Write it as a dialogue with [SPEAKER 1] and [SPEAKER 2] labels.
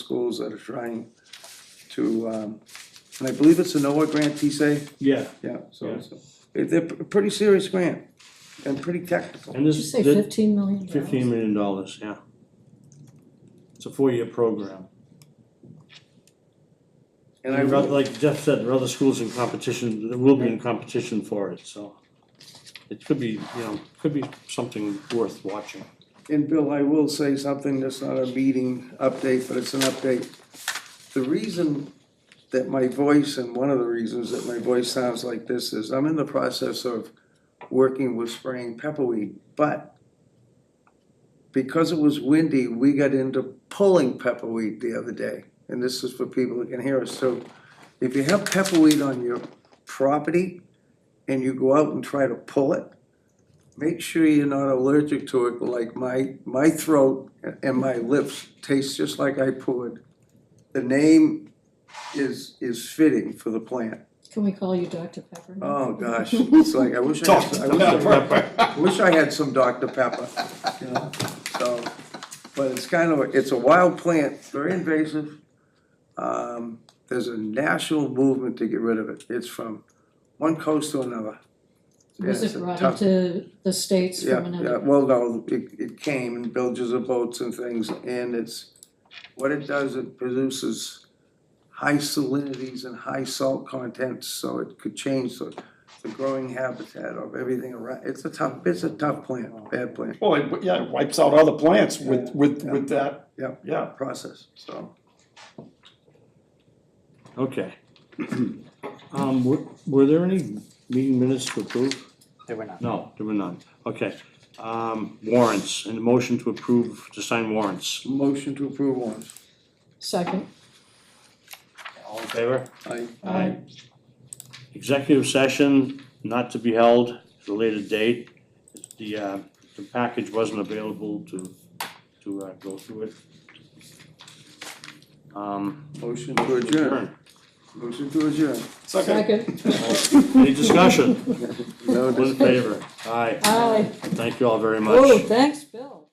[SPEAKER 1] schools that are trying to, um, and I believe it's a NOAA grant, TSA,
[SPEAKER 2] Yeah,
[SPEAKER 1] yeah, so,
[SPEAKER 2] Yeah.
[SPEAKER 1] so, they're, they're a pretty serious grant, and pretty technical.
[SPEAKER 2] and
[SPEAKER 3] Did you
[SPEAKER 2] this,
[SPEAKER 3] say
[SPEAKER 2] the
[SPEAKER 3] fifteen million dollars?
[SPEAKER 2] fifteen million dollars, yeah. It's a four-year program.
[SPEAKER 1] And I,
[SPEAKER 2] And rather- like Jeff said, there are other schools in competition, there will be in competition for it, so. It could be, you know, could be something worth watching.
[SPEAKER 1] and Bill, I will say something that's not a meeting update, but it's an update. The reason that my voice, and one of the reasons that my voice sounds like this is, I'm in the process of working with spraying pepperweed, but because it was windy, we got into pulling pepperweed the other day. And this is for people who can hear us. So if you have pepperweed on your property and you go out and try to pull it, make sure you're not allergic to it, like my, my throat and my lips taste just like I poured. The name is, is fitting for the plant.
[SPEAKER 3] Can we call you Dr. Pepper?
[SPEAKER 1] Oh, gosh, it's like, I wish I had, I wish I had- I wish I had some Dr. Pepper, you know, so, but it's kind of, it's a wild plant, very invasive. Um, there's a national movement to get rid of it, it's from one coast to another. Yeah,
[SPEAKER 3] Was
[SPEAKER 1] it's
[SPEAKER 3] it
[SPEAKER 1] a
[SPEAKER 3] brought
[SPEAKER 1] tough-
[SPEAKER 3] into the states from
[SPEAKER 1] Yeah, yeah,
[SPEAKER 3] another?
[SPEAKER 1] well, no, it, it came in bilges of boats and things, and it's, what it does, it produces high salinities and high salt contents, so it could change the, the growing habitat of everything around, it's a tough, it's a tough plant, bad plant.
[SPEAKER 4] Well, it, yeah, it wipes out other plants with, with,
[SPEAKER 1] Yeah.
[SPEAKER 4] with that.
[SPEAKER 1] Yeah.
[SPEAKER 4] Yeah,
[SPEAKER 1] process, so.
[SPEAKER 2] Okay. Um, were, were there any meeting minutes to approve?
[SPEAKER 5] There were not.
[SPEAKER 2] No, there were none, okay. Um, warrants, and a motion to approve, to sign warrants.
[SPEAKER 1] Motion to approve warrants.
[SPEAKER 3] Second,
[SPEAKER 2] All in favor?
[SPEAKER 1] I,
[SPEAKER 3] Aye.
[SPEAKER 2] Executive session not to be held at a later date. The, uh, the package wasn't available to, to, uh, go through it. Um,
[SPEAKER 1] motion to adjourn. Motion to adjourn.
[SPEAKER 4] second.
[SPEAKER 3] second,
[SPEAKER 2] Any discussion?
[SPEAKER 1] No
[SPEAKER 2] All in favor? Aye,
[SPEAKER 3] aye.
[SPEAKER 2] thank you all very much.
[SPEAKER 3] Oh, thanks, Bill.